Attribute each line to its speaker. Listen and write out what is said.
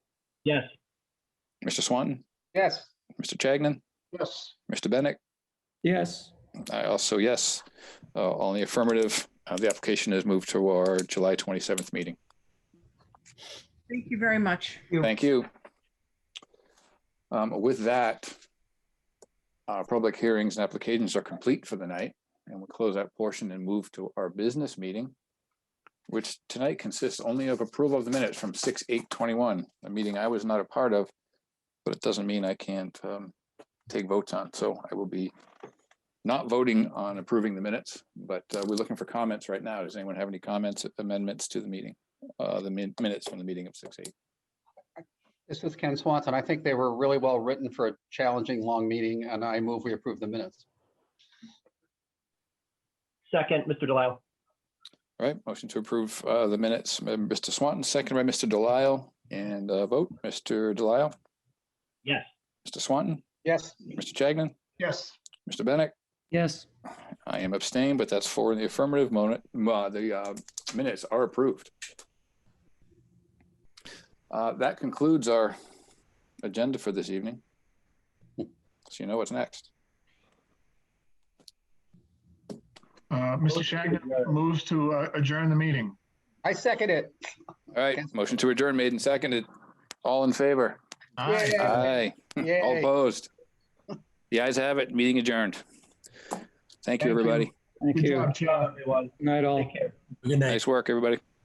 Speaker 1: Yes.
Speaker 2: Mr. Swanton,
Speaker 3: Yes.
Speaker 2: Mr. Chagnon,
Speaker 3: Yes.
Speaker 2: Mr. Bennett.
Speaker 4: Yes.
Speaker 2: I also, yes. Uh, All in the affirmative, Uh, the application is moved to our July 27th meeting.
Speaker 5: Thank you very much.
Speaker 2: Thank you. Um, With that, our public hearings and applications are complete for the night, and we'll close that portion and move to our business meeting, which tonight consists only of approval of the minutes from 6:821, a meeting I was not a part of, but it doesn't mean I can't um, take votes on. So I will be not voting on approving the minutes, but uh, we're looking for comments right now. Does anyone have any comments, amendments to the meeting, uh, the min- minutes from the meeting of 6:8?
Speaker 3: This is Ken Swanson. I think they were really well written for a challenging, long meeting, and I move we approve the minutes.
Speaker 1: Second, Mr. Delisle.
Speaker 2: All right, motion to approve uh, the minutes, by Mr. Swanton, second by Mr. Delisle, and uh, vote, Mr. Delisle,
Speaker 1: Yes.
Speaker 2: Mr. Swanton,
Speaker 3: Yes.
Speaker 2: Mr. Chagnon,
Speaker 3: Yes.
Speaker 2: Mr. Bennett.
Speaker 4: Yes.
Speaker 2: I am abstained, but that's four in the affirmative. Moment, the uh, minutes are approved. Uh, That concludes our agenda for this evening. So you know what's next.
Speaker 6: Uh, Mr. Shagnon moves to uh, adjourn the meeting.
Speaker 3: I second it.
Speaker 2: All right, motion to adjourn made and seconded. All in favor?
Speaker 6: Aye.
Speaker 3: Yay.
Speaker 2: Aye. All
Speaker 3: Yay.
Speaker 2: opposed? The ayes have it. Meeting adjourned. Thank you,
Speaker 6: Thank you.
Speaker 2: everybody.
Speaker 4: Thank
Speaker 6: Good
Speaker 4: you.
Speaker 6: job, Chair.
Speaker 1: everyone.
Speaker 4: Night all.
Speaker 1: Take care.
Speaker 2: Nice work, everybody.